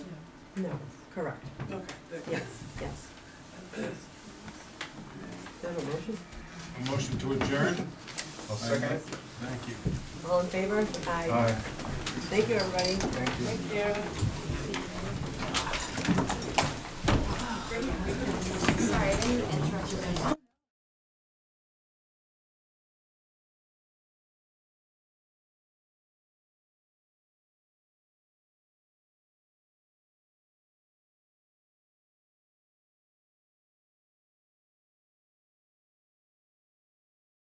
No, correct, Okay, thank you. yes, yes. Is that a motion? A motion to adjourn? I'll second it. Thank you. All in favor? Aye. Thank you, everybody. Thank you. Thank you.